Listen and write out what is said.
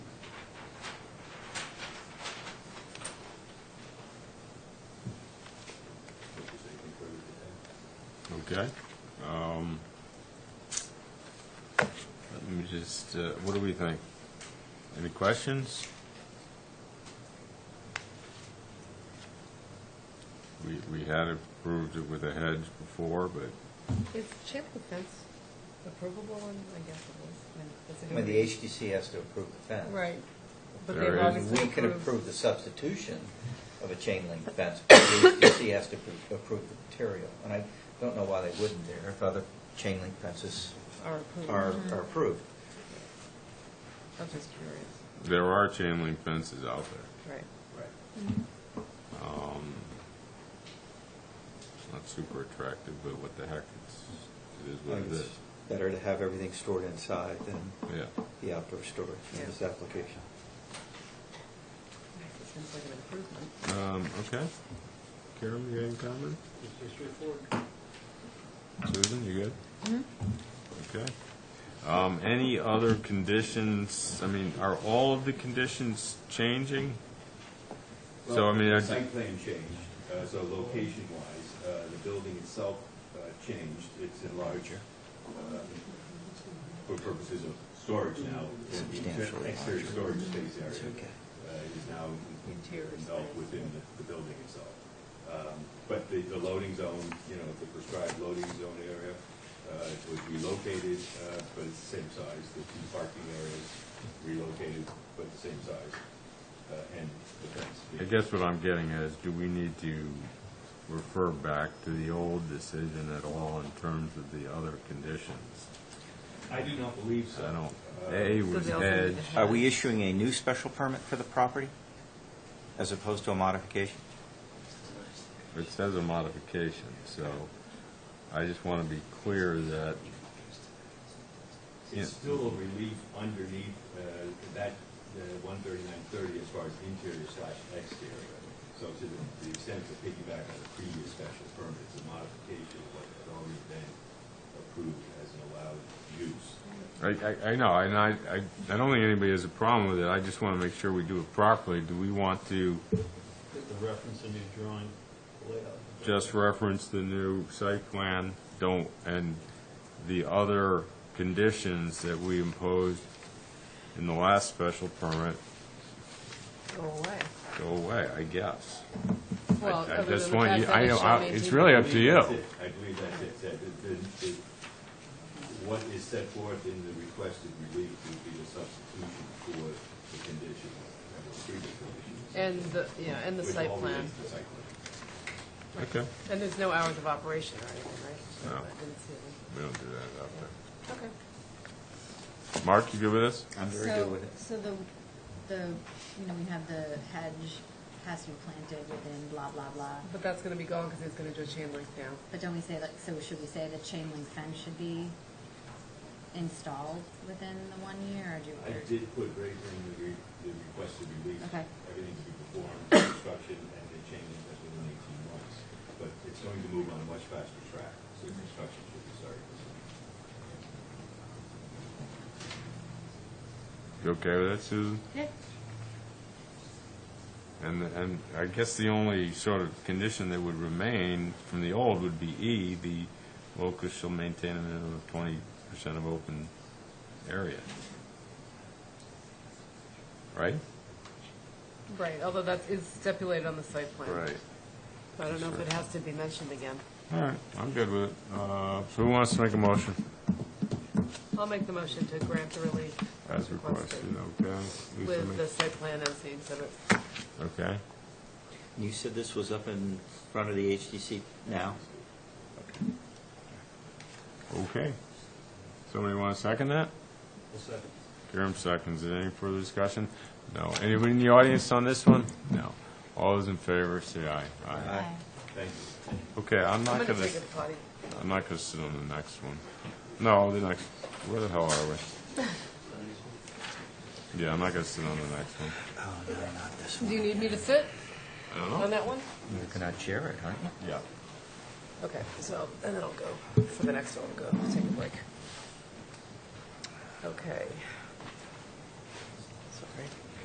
Okay. Um, Let me just, uh, what do we think? Any questions? We, we had approved it with a hedge before, but Is chain link fence approvable one? I guess it is. I mean, When the it's a- HDC has to approve the fence. Right. But There they've is- And obviously we can approved. approve the substitution of a chain link fence, but the HDC has to appro- approve the material. And I don't know why they wouldn't there if other chain link fences Are approved. are Mhm. are approved. I'm just curious. there are chain link fences out there. Right. Right. Um, It's not super attractive, but what the heck, it's, it is I what think it it's is. better to have everything stored inside than Yeah. the outdoor storage in this Yeah. application. It seems like an improvement. Um, okay. Karen, you got any comment? Susan, you good? Hmm? Okay. Um, any other conditions, I mean, are all of the conditions changing? So, I Well, mean, I- the Site plan changed, uh, so location-wise, uh, the building itself uh, changed, it's enlarged uh, for purposes of storage now. and the Substantially Exterior larger. storage space area It's okay. uh, is now Interior engulfed space. within the- the building itself. Um, But the, the loading zone, you know, the prescribed loading zone area uh, was relocated, uh, but it's the same size. The two parking areas relocated, but the same size, uh, and the fence. I guess what I'm getting at is, do we need to refer back to the old decision at all in terms of the other conditions? I do not believe so. I don't, Uh, A So was they also need to hedge. have- Are we issuing a new special permit for the property as opposed to a modification? It says a modification, so I just want to be clear that, It's Yeah. still a relief underneath uh, that uh, one thirty-nine thirty as far as interior slash exterior. So to the the extent to piggyback on the previous special permit, it's a modification of what had already been approved as an allowed use. I, I- I know, and I, I I don't think anybody has a problem with it, I just want to make sure we do it properly. Do we want to The reference a new drawing layout. just reference the new site plan, don't, and the other conditions that we imposed in the last special permit Go away. go away, I guess? I- Well, I other just than the want fact you- that I it know, shall I- maintain- It's really up to I believe that's you. it. I believe that's it, that the- the- the- what is set forth in the requested relief would be the substitution for the condition, uh, the previous conditions. And the, yeah, and the Which site all plan. relates to the site plan. Okay, And there's no hours of operation or anything, right? No. I didn't see it. we don't do that out there. Okay. Mark, you good with this? I'm very So- good with it. So the, the, you know, we have the hedge has to be planted within blah, blah, blah. But that's going to be gone because he's going to do a chain link now. But don't we say like, so should we say the chain link fence should be installed within the one year or do? I did put right in the re- the requested release, Okay. everything to be performed, construction, and the change has been in eighteen months. But it's going to move on a much faster track, so the construction should be started. this week. You okay with that, Susan? Yeah, And, and I guess the only sort of condition that would remain from the old would be E, the locus shall maintain a minimum of twenty percent of open area. Right? Right, although that is stipulated on the site plan. So I don't know if it has to be mentioned again. All right, I'm good with it. Uh, so who wants to make a motion I'll make the motion to grant the relief. as requested, okay? Lisa With make- the site plan as the exhibit. Okay, You said this was up in front of the HDC now? okay. Somebody want to second that? Well, second. Karam seconds it. Any further discussion? No. Anybody in the audience on this one? No. All those in favor, say aye. Aye. Aye. Thank you. Okay, I'm I'm not going gonna, to take a potty. I'm not gonna sit on the next one. No, the next, where the hell are we? Yeah, I'm not gonna sit on the next one. Oh, no, not this Do you need me to sit I don't on know. that one? You're going to chair it, aren't you? Yeah. Okay, so, and then I'll go for the next one, go take a break. Okay.